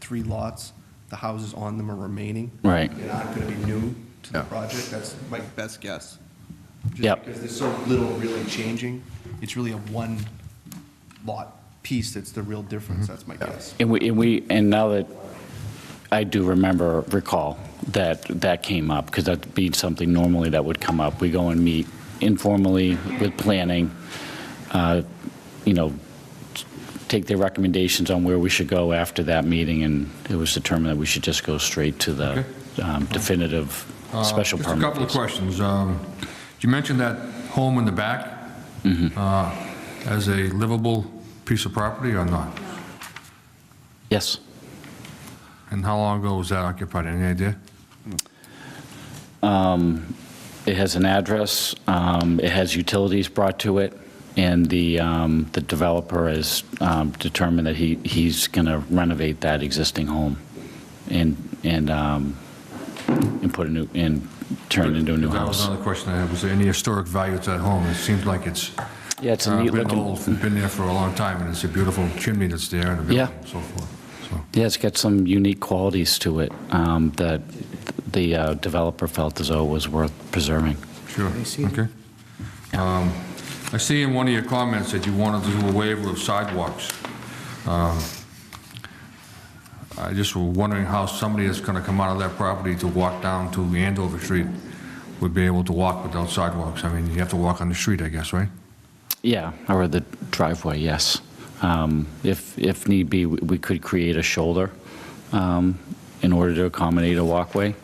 three lots, the houses on them are remaining. Right. And aren't going to be new to the Yeah. project, that's my best guess. Just Yep. Because there's so little really changing, it's really a one lot piece that's the real difference, Mm-hmm. that's my guess. And we, and we, and now that I do remember, recall that that came up, because that'd be something normally that would come up. We go and meet informally with planning, uh, you know, take their recommendations on where we should go after that meeting, and it was determined that we should just go straight to the um, definitive Uh, special Just a permit. couple of questions. Um, You mentioned that home in the back Mm-hmm. uh, as a livable piece of property or not? Yes. And how long ago was that occupied? Any idea? It has an address, um, it has utilities brought to it, and the, um, the developer has um, determined that he, he's going to renovate that existing home and, and, um, and put a new, and turn it into a new That was house. another question I had. Was there any historic value to that home? It seems like it's Yeah, it's a uh, neat been looking, old, been there for a long time, and it's a beautiful chimney that's there and a Yeah. building and so forth. So, yeah, it's got some unique qualities to it um, that the uh, developer felt as though was worth preserving. sure, okay. Um, I see in one of your comments that you wanted to do a waiver of sidewalks. Um, I just were wondering how somebody that's going to come out of that property to walk down to Andover Street would be able to walk without sidewalks. I mean, you have to walk on the street, I guess, right? Yeah, or the driveway, yes. Um, If, if need be, we we could create a shoulder um, in order to accommodate a walkway,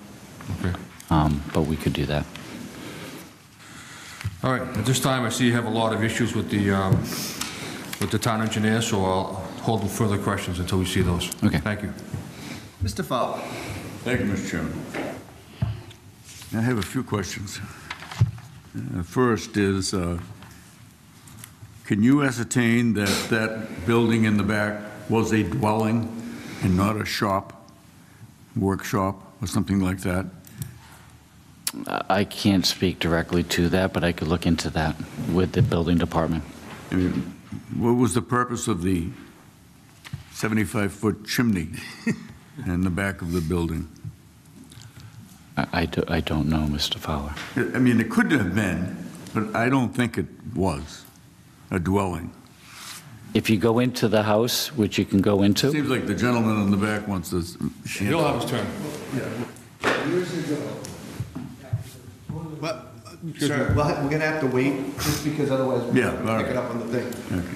Okay. um, but we could do that. All right, at this time, I see you have a lot of issues with the, um, with the town engineer, so I'll hold further questions until we see those. Okay. Thank you. Mr. Fowler? Thank you, Mr. Chairman. I have a few questions. Uh, First is, uh, can you ascertain that that building in the back was a dwelling and not a shop, workshop, or something like that? I I can't speak directly to that, but I could look into that with the building department. I mean, what was the purpose of the 75-foot chimney in the back of the building? I, I do- I don't know, Mr. Fowler. I I mean, it could have been, but I don't think it was a dwelling. If you go into the house, which you can go into, Seems like the gentleman in the back wants this. You'll have his turn. Well, uh, sir, we'll ha- we're gonna have to wait, just because otherwise we're Yeah, all gonna pick right. it up on the thing.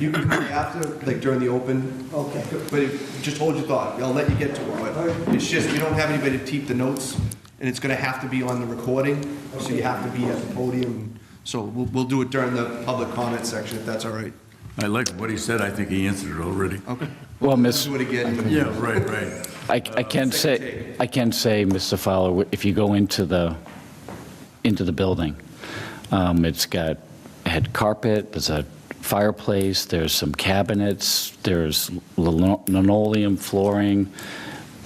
You can come after, like during the open. Okay. But if- just hold your thought, I'll let you get to it. But It's just, we don't have anybody to keep the notes, and it's gonna have to be on the recording, so you have to be at the podium. So we'll, we'll do it during the public comment section, if that's all right. I like what he said, I think he answered it already. Okay. well, Miss. Do it again. Yeah, right, right. I, I can say, I can say, Mr. Fowler, if you go into the, into the building, um, it's got, had carpet, there's a fireplace, there's some cabinets, there's lino- linoleum flooring,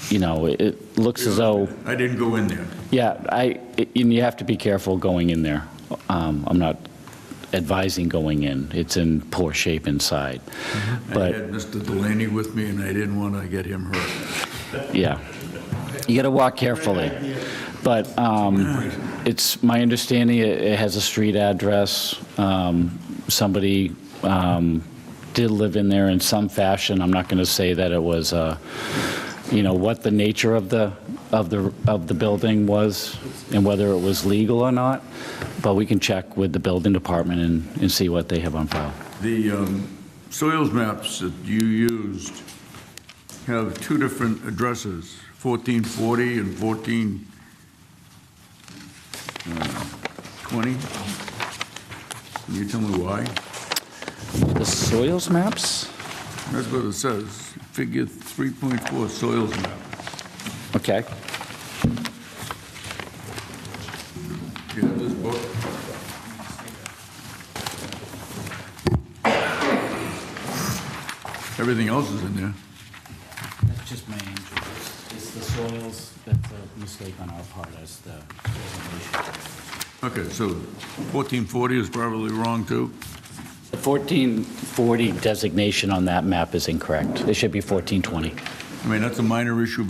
you know, it- it looks as though, I didn't go in there. yeah, I, and you have to be careful going in there. Um, I'm not advising going in, it's in poor shape inside, I but. had Mr. Delaney with me, and I didn't want to get him hurt. Yeah. You got to walk carefully. But um, it's, my understanding, it it has a street address. Um, Somebody um, did live in there in some fashion. I'm not going to say that it was, uh, you know, what the nature of the, of the, of the building was and whether it was legal or not, but we can check with the building department and, and see what they have on file. The um, soils maps that you used have two different addresses, 1440 and 1420. uh, Can you tell me why? The soils maps? That's what it says, figure 3.4 soils map. Okay. Do you have this book? Everything else is in there. That's just my injury. It's the soils, that's a mistake on our part as the designation. Okay, so 1440 is probably wrong, too? The 1440 designation on that map is incorrect. It should be 1420. I mean, that's a minor issue,